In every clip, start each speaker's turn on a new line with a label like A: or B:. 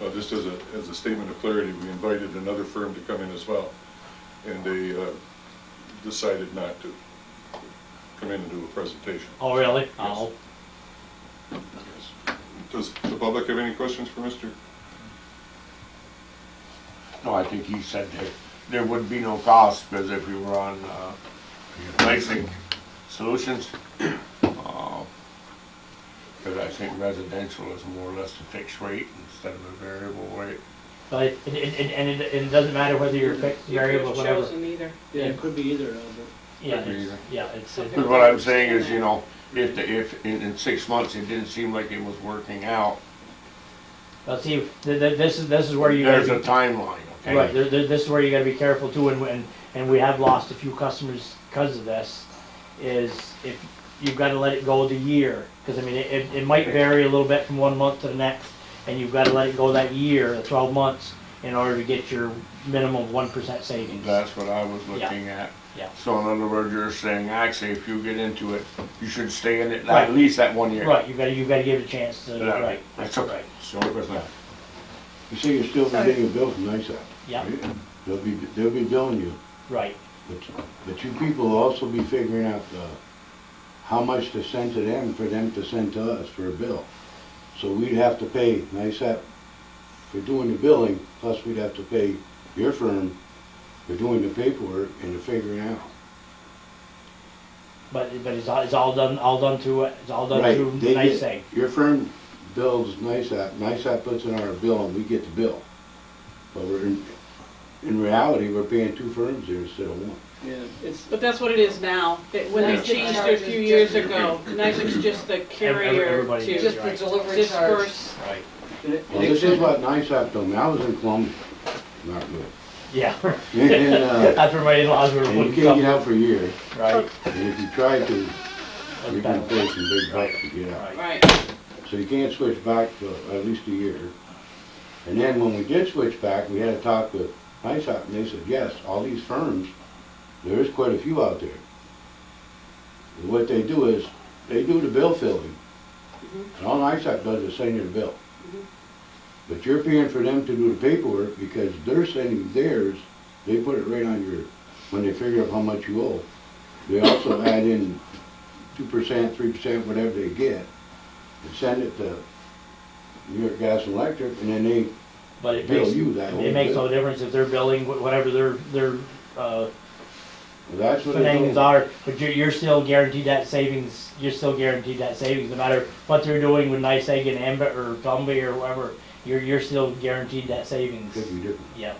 A: Uh, Just as a, as a statement of clarity, we invited another firm to come in as well, and they uh, decided not to come in and do a presentation.
B: Oh, really?
A: Yes.
B: Oh,
A: Yes. Does the public have any questions for Mr.?
C: No, I think he said that there would be no cost, because if we were on, uh, basic solutions, because I think residential is more or less a fixed rate instead of a variable rate.
B: but, and, and, and- and it, and it doesn't matter whether you're fixed,
D: You could
B: variable,
D: have
B: whatever.
D: chosen either.
E: Yeah, it could be either, Albert.
B: Yeah,
C: Could be
B: it's,
C: either.
B: yeah, it's,
C: But what I'm saying is, you know, if, the- if, in, in six months, it didn't seem like it was working out,
B: well, see, th- th- this is, this is where you
C: there's a
B: gotta
C: timeline,
B: be, right, th-
C: okay?
B: th- this is where you gotta be careful too, and, and, and we have lost a few customers because of this, is if, you've gotta let it go the year, cause I mean, it- it, it might vary a little bit from one month to the next, and you've gotta let it go that year, the twelve months, in order to get your minimum one percent savings.
C: That's what I was looking at.
B: Yeah.
C: So in other words, you're saying, actually, if you get into it, you should stay in it
B: Right.
C: at least that one year.
B: Right, you gotta, you gotta give it a chance to,
C: Yeah,
B: right,
C: That's
B: that's
C: okay.
B: right,
C: It's the only question I have.
F: You say you're still
D: Sorry.
F: getting a bill from NISA.
B: yeah,
F: They'll be, they'll be billing you,
B: right.
F: but, but you people will also be figuring out, uh, how much to send to them for them to send to us for a bill. So we'd have to pay NISA for doing the billing, plus we'd have to pay your firm for doing the paperwork and the figuring out.
B: But, but it's all, it's all done, all done through, it's all done
F: Right,
B: through
F: they
B: nice
F: get-
B: thing.
F: Your firm builds NISAP, NISAP puts in our bill and we get the bill. But we're, in, in reality, we're paying two firms here instead of one.
E: Yeah, it's,
D: But that's what it is now. It- When they
A: Yeah.
D: changed it a few years ago, NYSERDA's just the carrier
B: everybody
D: to
B: is.
G: Just the delivery charge.
D: disperse.
B: Right,
E: and it-
F: Well, this is what NISAP told me, I was in Columbia, not good.
B: yeah,
F: And, uh,
B: that's where my in-laws were
F: and you
B: putting
F: can't get
B: stuff,
F: out for years,
B: right,
F: and if you try to,
B: that's
F: you can
B: better.
F: pay some big bucks to get out.
B: Right,
D: Right.
F: So you can't switch back for at least a year. And then when we did switch back, we had a talk with NISAP, and they said, yes, all these firms, there is quite a few out there. And What they do is, they do the bill filling, and all NISAP does is send you the bill.
D: Mhm.
F: But you're paying for them to do the paperwork, because they're sending theirs, they put it right on your, when they figure out how much you owe. They also add in two percent, three percent, whatever they get, and send it to New York Gas and Electric, and then they
B: but it
F: bill
B: makes,
F: you that whole
B: it makes no
F: bill.
B: difference if they're billing wh- whatever their, their, uh,
F: That's what they're
B: things
F: doing.
B: are, but you're, you're still guaranteed that savings, you're still guaranteed that savings, no matter what they're doing with Nice Egg and Ambit or Gumby or whatever, you're, you're still guaranteed that savings,
F: Could be different.
B: yeah.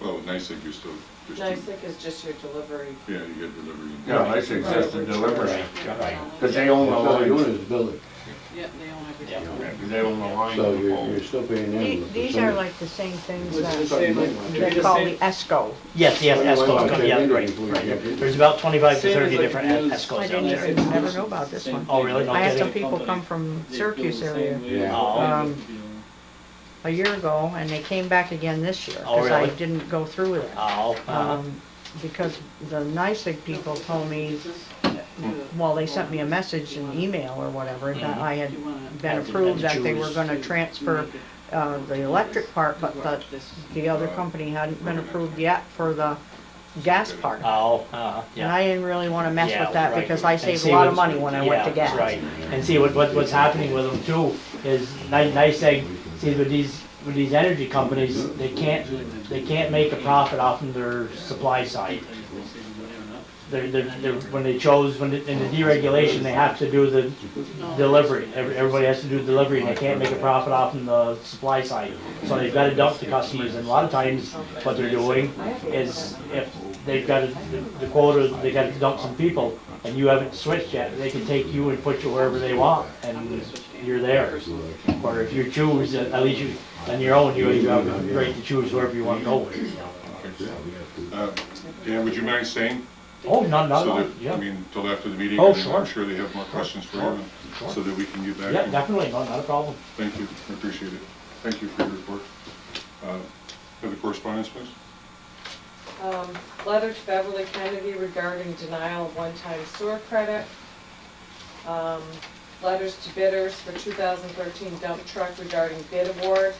A: Well, with NICEAG, you're still, you're still-
G: NICEAG is just your delivery.
A: yeah, you get delivery. and-
C: Yeah, I think that's the delivery, because they
F: That's
C: own the
F: all they're
C: line,
F: doing is billing,
D: Yeah, they own everything.
B: Yeah.
C: because they own the line.
F: so you're, you're still paying them.
H: The-
F: with the
H: These
F: same-
H: are like the same things
E: Was it the
H: that
E: same, like, it'd be
H: they
E: the
H: call
E: same-
H: the ESCO.
B: Yes, yes,
F: Well, why
B: ESCOs,
F: not
B: come-
F: take
B: yeah,
F: it
B: right,
F: before you get
B: right.
F: it?
B: There's about twenty-five to
E: Same as
B: thirty
E: like
B: different
E: news.
H: I
B: ESCOs down
H: didn't
B: there.
E: say-
H: even ever know about this
E: Same
H: one.
E: thing.
B: Oh, really? No
H: I had some
B: kidding?
H: people come from
E: they feel the
H: Syracuse
E: same
H: area
E: way.
F: Yeah.
E: Um,
H: Um,
B: Oh.
H: a year ago, and they came back again this year,
B: Oh,
H: because I
B: really?
H: didn't go through with it.
B: Oh,
E: Uh-huh.
B: uh,
H: Um, Because the NICEAG people told me, well, they sent me a message, an email or whatever, that
B: Mhm.
H: I had
D: Do you wanna-
H: been approved that they were gonna transfer uh, the electric part, but the, the other company hadn't been approved yet for the gas part.
B: oh, uh,
H: And
B: yeah.
H: I didn't really wanna mess
B: Yeah,
H: with that,
B: right.
H: because I
B: And
H: saved
B: see
H: a lot of
B: what's-
H: money when I went to
B: yeah,
H: gas.
B: Right, and see what, what, what's happening with them too is Ni- NICEAG, see with these, with these energy companies, they can't, they can't make a profit off of their supply side. They're, they're, they're, when they chose, when, the- in the deregulation, they have to do the delivery, Every- everybody has to do delivery, and they can't make a profit off on the supply side. So they've gotta dump the customers, and a lot of times, what they're doing is, if they've got a- the quota, they gotta dump some people, and you haven't switched yet, they can take you and put you wherever they want, and you're there. Or if you choose, at least you, on your own, you you have the right to choose wherever you wanna go.
A: Uh, Dan, would you mind staying?
B: Oh, no, no,
A: So
B: no,
A: that, I
B: yeah,
A: mean, till after the meeting?
B: Oh,
A: and
B: sure.
A: I'm sure they have more questions for
B: Sure,
A: you,
B: sure.
A: and- so that we can get back.
B: yeah,
A: and-
B: definitely, no, not a problem.
A: Thank you, I appreciate it. Thank you for your report. Uh, Have the correspondence, please?
G: Um, Letter to Beverly Kennedy regarding denial of one-time sewer credit. Um, Letters to bidders for 2013 dump truck regarding bid award.